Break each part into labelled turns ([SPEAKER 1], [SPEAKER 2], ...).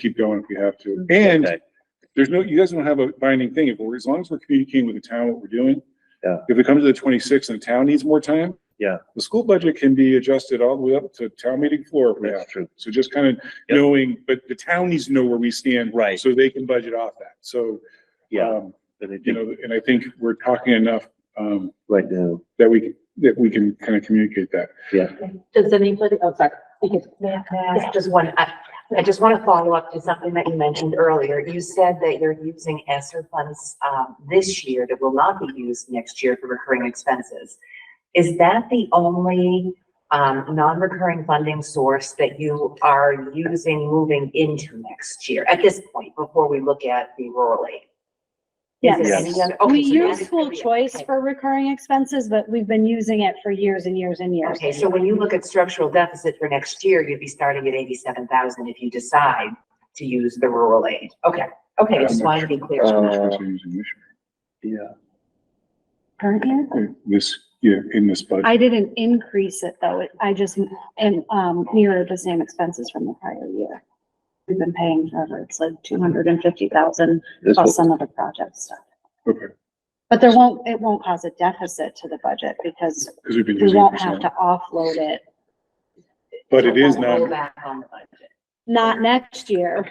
[SPEAKER 1] keep going if we have to.
[SPEAKER 2] Mm-hmm.
[SPEAKER 1] And
[SPEAKER 3] Okay.
[SPEAKER 1] there's no, you guys don't have a binding thing. If we're, as long as we're communicating with the town what we're doing.
[SPEAKER 3] Yeah.
[SPEAKER 1] If it comes to the twenty-sixth and the town needs more time.
[SPEAKER 3] Yeah.
[SPEAKER 1] The school budget can be adjusted all the way up to town meeting floor if we have.
[SPEAKER 3] That's true.
[SPEAKER 1] So just kind of
[SPEAKER 3] Yep.
[SPEAKER 1] knowing, but the town needs to know where we stand.
[SPEAKER 3] Right.
[SPEAKER 1] So they can budget off that. So.
[SPEAKER 3] Yeah.
[SPEAKER 1] um,
[SPEAKER 3] Uh, But I
[SPEAKER 1] You
[SPEAKER 3] think
[SPEAKER 1] know, and I think we're talking enough, um,
[SPEAKER 3] right now,
[SPEAKER 1] that we, that we can kind of communicate that.
[SPEAKER 4] Does anybody, oh, sorry, because
[SPEAKER 5] Mask, Just one, I, I just want to follow up to something that you mentioned earlier. You said that you're using ESSER funds, um, this year that will not be used next year for recurring expenses. Is that the only, um, non-recurring funding source that you are using moving into next year at this point, before we look at the rural aid? Is there
[SPEAKER 3] Yes.
[SPEAKER 5] any other- okay,
[SPEAKER 2] We
[SPEAKER 5] so that
[SPEAKER 2] use
[SPEAKER 5] is
[SPEAKER 2] school
[SPEAKER 5] gonna be-
[SPEAKER 2] choice
[SPEAKER 5] okay.
[SPEAKER 2] for recurring expenses, but we've been using it for years and years and years.
[SPEAKER 5] Okay, so when you look at structural deficit for next year, you'd be starting at eighty-seven thousand if you decide to use the rural aid. Okay, okay, I just wanted to be clear.
[SPEAKER 1] That's
[SPEAKER 3] Uh,
[SPEAKER 1] what we're using this
[SPEAKER 3] yeah,
[SPEAKER 2] Current year?
[SPEAKER 1] year. This, yeah, in this budget.
[SPEAKER 2] I didn't increase it though. It- I just, and, um, mirrored the same expenses from the prior year. We've been paying forever. It's like two hundred and fifty thousand
[SPEAKER 3] this
[SPEAKER 2] plus
[SPEAKER 3] will,
[SPEAKER 2] some other project stuff.
[SPEAKER 1] Okay,
[SPEAKER 2] But there won't, it won't cause a deficit to the budget because
[SPEAKER 1] because we've been
[SPEAKER 2] we
[SPEAKER 1] using.
[SPEAKER 2] won't
[SPEAKER 1] it for so long.
[SPEAKER 2] have to offload it,
[SPEAKER 1] But it is not.
[SPEAKER 5] Roll back on the budget.
[SPEAKER 2] not next year.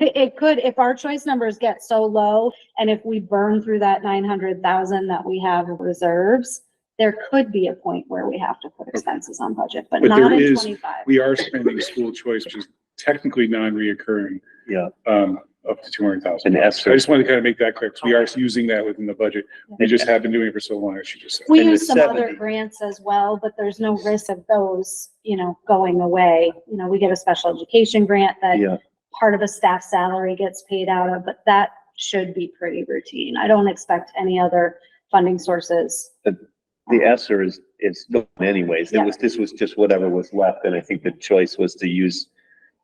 [SPEAKER 2] It could, if our choice numbers get so low and if we burn through that nine hundred thousand that we have in reserves, there could be a point where we have to put expenses on budget, but
[SPEAKER 1] But
[SPEAKER 2] not
[SPEAKER 1] there
[SPEAKER 2] in
[SPEAKER 1] is-
[SPEAKER 2] twenty-five.
[SPEAKER 1] we are spending school choice, which is technically non-reoccurring,
[SPEAKER 3] yeah.
[SPEAKER 1] um, up to two hundred thousand.
[SPEAKER 3] And
[SPEAKER 1] I
[SPEAKER 3] ESSER.
[SPEAKER 1] just wanted to kind of make that clear, because we are using that within the budget. We just have been doing it for so long, as she just said.
[SPEAKER 2] We
[SPEAKER 3] and
[SPEAKER 2] use
[SPEAKER 3] the
[SPEAKER 2] some other
[SPEAKER 3] 70.
[SPEAKER 2] grants as well, but there's no risk of those, you know, going away. You know, we get a special education grant that
[SPEAKER 3] Yeah,
[SPEAKER 2] part of a staff salary gets paid out of, but that should be pretty routine. I don't expect any other funding sources.
[SPEAKER 3] the ESSER is, is gone anyways. It
[SPEAKER 2] Yeah.
[SPEAKER 3] was, this was just whatever was left, and I think the choice was to use,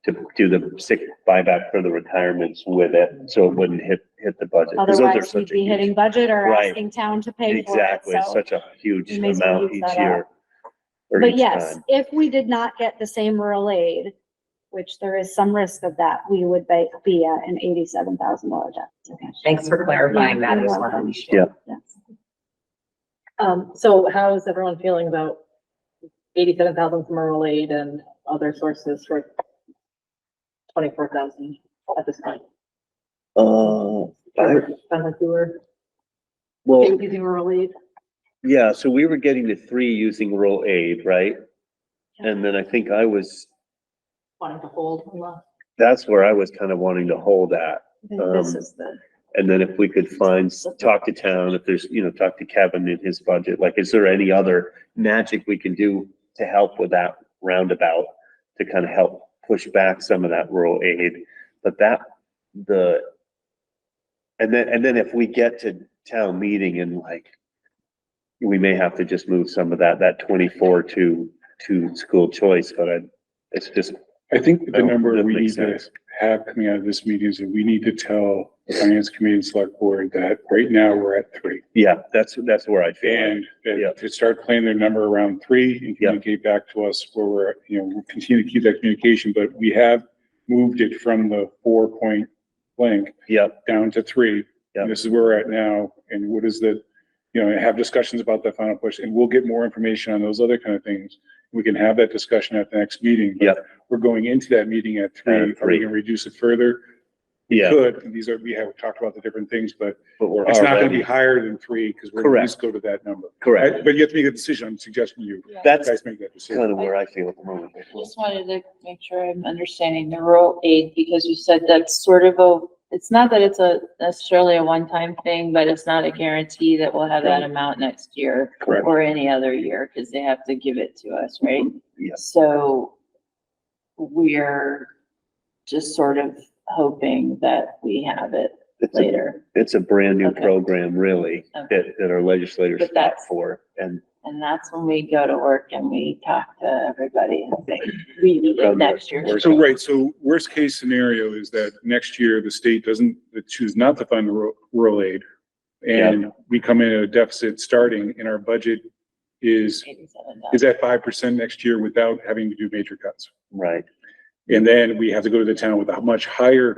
[SPEAKER 3] to do the sick buyback for the retirements with it, so it wouldn't hit, hit the budget. 'Cause those are
[SPEAKER 2] Otherwise,
[SPEAKER 3] such
[SPEAKER 2] we'd
[SPEAKER 3] a
[SPEAKER 2] be
[SPEAKER 3] huge-
[SPEAKER 2] hitting budget or
[SPEAKER 3] Right.
[SPEAKER 2] asking town to pay for it.
[SPEAKER 3] Exactly,
[SPEAKER 2] So,
[SPEAKER 3] such a huge
[SPEAKER 2] you may as well
[SPEAKER 3] amount
[SPEAKER 2] use
[SPEAKER 3] each
[SPEAKER 2] that
[SPEAKER 3] year. or
[SPEAKER 2] but
[SPEAKER 3] each
[SPEAKER 2] yes,
[SPEAKER 3] time.
[SPEAKER 2] if we did not get the same rural aid, which there is some risk of that, we would be, be at an eighty-seven thousand dollar deficit.
[SPEAKER 5] Thanks for clarifying that. I just wanted to be sure.
[SPEAKER 3] Yeah.
[SPEAKER 2] Yes.
[SPEAKER 6] Um, so how is everyone feeling about eighty-seven thousand from rural aid and other sources for twenty-four thousand at this point?
[SPEAKER 3] Uh, I,
[SPEAKER 6] Sounds like we were
[SPEAKER 3] well.
[SPEAKER 6] using rural aid.
[SPEAKER 3] Yeah, so we were getting to three using roll aid, right?
[SPEAKER 2] Yeah.
[SPEAKER 3] And then I think I was,
[SPEAKER 6] wanting to hold. on the-
[SPEAKER 3] that's where I was kind of wanting to hold at.
[SPEAKER 2] I think This
[SPEAKER 3] Um,
[SPEAKER 2] is the.
[SPEAKER 3] And then if we could find, talk to town, if there's, you know, talk to Kevin and his budget, like, is there any other magic we can do to help with that roundabout? To kind of help push back some of that rural aid, but that, the. And then, and then if we get to town meeting and like. We may have to just move some of that, that twenty-four to, to school choice, but I, it's just,
[SPEAKER 1] I think the
[SPEAKER 3] Oh,
[SPEAKER 1] number
[SPEAKER 3] that
[SPEAKER 1] we need
[SPEAKER 3] makes
[SPEAKER 1] to
[SPEAKER 3] sense.
[SPEAKER 1] have coming out of this meeting is that we need to tell the finance committee and select board that right now we're at three.
[SPEAKER 3] yeah, that's, that's where I feel. like.
[SPEAKER 1] And that
[SPEAKER 3] Yeah.
[SPEAKER 1] to start playing their number around three and
[SPEAKER 3] Yeah.
[SPEAKER 1] communicate back to us where we're, at, you know, we'll continue to keep that communication, but we have moved it from the four point blank
[SPEAKER 3] Yep.
[SPEAKER 1] down to three.
[SPEAKER 3] Yeah.
[SPEAKER 1] And this is where we're at now, and what is the, you know, and have discussions about that final push, and we'll get more information on those other kind of things. We can have that discussion at the next meeting. but
[SPEAKER 3] Yeah.
[SPEAKER 1] We're going into that meeting at three. Are
[SPEAKER 3] At
[SPEAKER 1] we
[SPEAKER 3] three.
[SPEAKER 1] gonna reduce it further?
[SPEAKER 3] Yeah.
[SPEAKER 1] Could, and these are, we have talked about the different things, but
[SPEAKER 3] But we're
[SPEAKER 1] it's not gonna be
[SPEAKER 3] already,
[SPEAKER 1] higher than three, because we're gonna at
[SPEAKER 3] Correct.
[SPEAKER 1] least go to that number. I-
[SPEAKER 3] correct,
[SPEAKER 1] But you have to make a decision, I'm suggesting you
[SPEAKER 3] that's
[SPEAKER 1] guys make that
[SPEAKER 3] kind
[SPEAKER 1] decision.
[SPEAKER 3] of where I feel at the moment.
[SPEAKER 7] Just wanted to make sure I'm understanding the rural aid, because you said that's sort of a, it's not that it's a necessarily a one-time thing, but it's not a guarantee that we'll have that amount next year
[SPEAKER 3] Correct.
[SPEAKER 7] or any other year, because they have to give it to us, right?
[SPEAKER 3] Yes.
[SPEAKER 7] So we're just sort of hoping that we have it
[SPEAKER 3] It's a,
[SPEAKER 7] later,
[SPEAKER 3] it's a brand new
[SPEAKER 7] Okay.
[SPEAKER 3] program really,
[SPEAKER 7] Okay.
[SPEAKER 3] that, that our legislators
[SPEAKER 7] But
[SPEAKER 3] fought
[SPEAKER 7] that's-
[SPEAKER 3] for. And
[SPEAKER 7] and that's when we go to work and we talk to everybody and say, we need it next year.
[SPEAKER 1] So, right, so worst case scenario is that next year the state doesn't, they choose not to fund the ru- rural aid. And we come in at a deficit starting and our budget is,
[SPEAKER 7] $87,000.
[SPEAKER 1] is at five percent next year without having to do major cuts.
[SPEAKER 3] Right,
[SPEAKER 1] And then we have to go to the town with a much higher